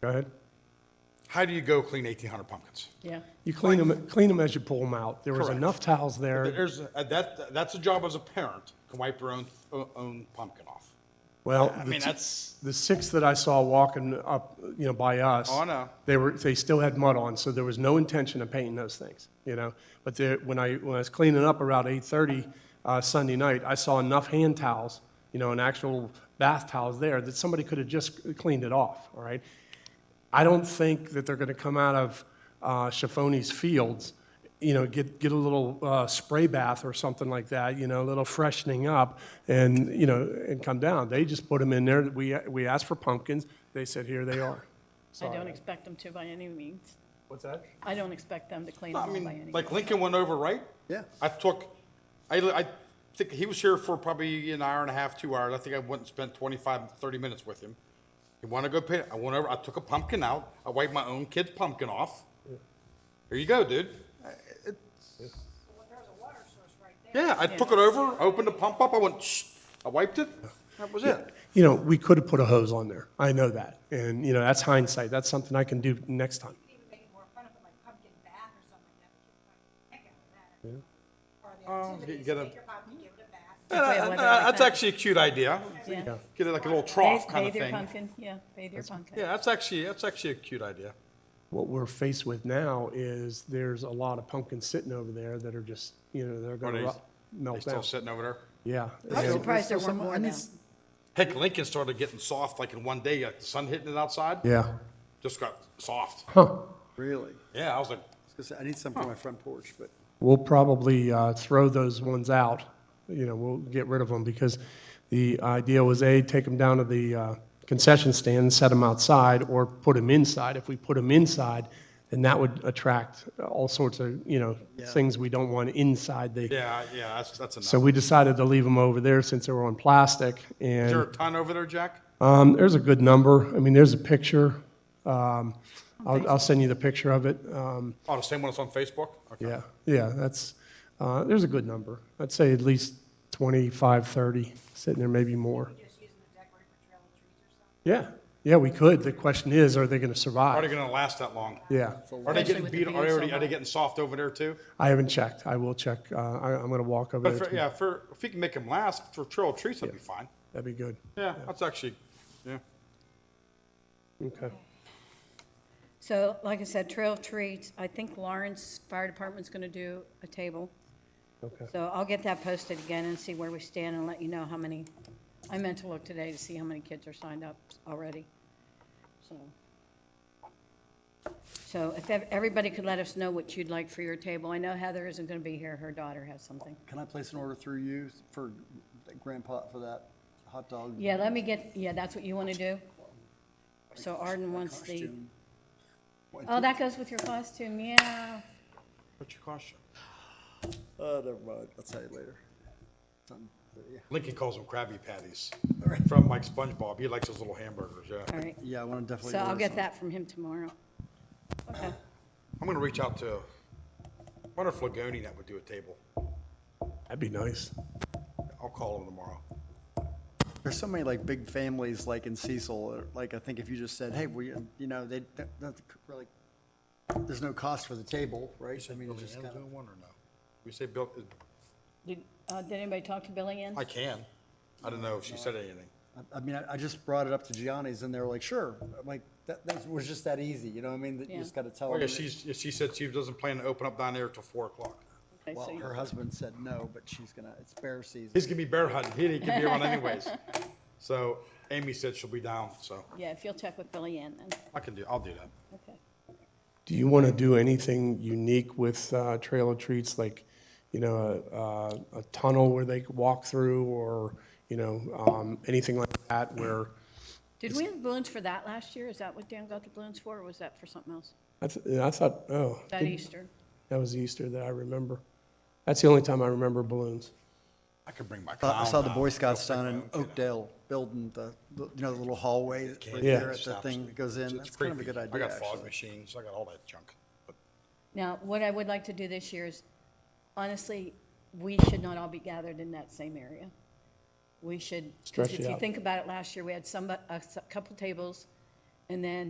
Go ahead. How do you go clean 1,800 pumpkins? Yeah. You clean them, clean them as you pull them out. There was Correct. enough towels there. There's, uh, that, that's a job as a parent, to wipe your own, own pumpkin off. Well, I the mean, t- that's, the six that I saw walking up, you know, by us. Oh, I know. They were, they still had mud on, so there was no intention of painting those things, you know? But there, when I, when I was cleaning up around eight-thirty, uh, Sunday night, I saw enough hand towels, you know, and actual bath towels there that somebody could have just cleaned it off, all right? I don't think that they're gonna come out of, uh, Schifoni's fields, you know, get, get a little, uh, spray bath or something like that, you know, a little freshening up and, you know, and come down. They just put them in there. We, we asked for pumpkins. They said, here they are. I don't expect them to by any means. What's that? I don't expect them to clean I them up by any mean, means. like Lincoln went over, right? Yeah. I took, I, I think he was here for probably an hour and a half, two hours. I think I went and spent 25, 30 minutes with him. He wanted to go pit, I went over, I took a pumpkin out, I wiped my own kid's pumpkin off. Here you go, dude. I- it- Yeah, I took it over, opened the pump up, I went, shh, I wiped it, that was it. You know, we could have put a hose on there. I know that. And, you know, that's hindsight. That's something I can do next time. even make it more fun, if it, like pumpkin bath or something like that, the kids might heck out of that. Or the activity Um, is get a- take your pumpkin, give it a bath. Yeah, like that. Uh, That's actually a cute idea. Yeah. Get it like a little trough Bathe kind of bathe your thing. pumpkin, yeah, bathe your pumpkin. Yeah, that's actually, that's actually a cute idea. What we're faced with now is there's a lot of pumpkins sitting over there that are just, you know, they're Are going they- to They melt still down. sitting over there? Yeah. I'm And- surprised there weren't Some- more I now. mean, s- Heck, Lincoln started getting soft like in one day, like the sun hitting it outside. Yeah. Just got soft. Huh. Really? Yeah, I was like, Because I need some for my front porch, but We'll probably uh, throw those ones out, you know, we'll get rid of them, because the idea was, A, take them down to the uh, concession stand, and set them outside, or put them inside. If we put them inside, then that would attract all sorts of, you know, things we don't want inside the, yeah, yeah, that's, that's enough. so we decided to leave them over there since they were on plastic, Is there a and ton over there, Jack? um, there's a good number, I mean, there's a picture, Um, I'll I'll send you the picture of it. Um, Oh, the same one that's on Facebook? Okay. yeah, yeah, that's, uh, there's a good number. I'd say at least 25, 30, sitting there, maybe more. Just using the decorate for trail of trees or something. Yeah, yeah, we could. The question is, are they going to Are they survive? gonna last that long? Yeah, Are they Especially getting with the beat, are being they so already, are they hot. getting soft over there too? I haven't checked. I will check. Uh, I, I'm going to walk over But there. for, tomorrow. yeah, for, if you can make them last for trail of trees, that'd be fine. That'd be good. Yeah, that's actually, yeah. Okay. So, like I said, Trail of Treats, I think Lawrence Fire Department's gonna do a table. Okay. So I'll get that posted again and see where we stand and let you know how many, I meant to look today to see how many kids are signed up already, so. So if ev- everybody could let us know what you'd like for your table, I know Heather isn't gonna be here, her daughter has something. can I place an order through you for grandpa, for that hot dog? Yeah, let me get, yeah, that's what you wanna do? So Arden wants the, costume? oh, that goes with your costume, yeah. What's your question? Oh, never mind. I'll tell you later. Something, but yeah. Lincoln calls them Krabby Patties from like SpongeBob. He likes those little hamburgers, yeah. All right, Yeah, I want to definitely. so I'll order get some. that from him tomorrow. Okay, I'm gonna reach out to, I wonder if Lagoni that would do a table. That'd be nice. I'll call him tomorrow. There's so many like big families like in Cecil, or, like I think if you just said, hey, we, you know, they, don't don't really, there's no cost for the table, right? I mean, it's just kind of. one or no? We say Bill, did, uh, did anybody talk to Billy Ann? I can. I don't know if she said anything. I- I mean, I, I just brought it up to Gianni's and they were like, sure. I'm like, that, that was just that easy, you know what I mean? That you Yeah. just gotta tell Oh, them. yeah, that- she's, yeah, she said she doesn't plan to open up down there till four o'clock. Okay, so Well, you- her husband said no, but she's gonna, it's bear season. He's gonna be bear hunting. He didn't give me one anyways. So Amy said she'll be down, so Yeah, if you'll check with Billy Ann then, I can do, I'll do that. okay. Do you want to do anything unique with uh, Trail of Treats, like, you know, uh, a, a, a tunnel where they could walk through, or, you know, um, anything like that, where, Did we have balloons for that last year? Is that what Dan got the balloons for, or was that for something else? I, th- I thought, oh. That Easter? That was Easter that I remember. That's the only time I remember balloons. I could bring my clown I saw the down. Boy Scouts down in Oakdale building the, the- you know, the little hallway right Yeah. there at the thing that goes It's- in. it's That's kind of a creepy. good idea, I got fog actually. machines. I got all that junk. But Now, what I would like to do this year is, honestly, we should not all be gathered in that same area. We should, Stretch if it you out. think about it, last year, we had some, a s- couple tables, and then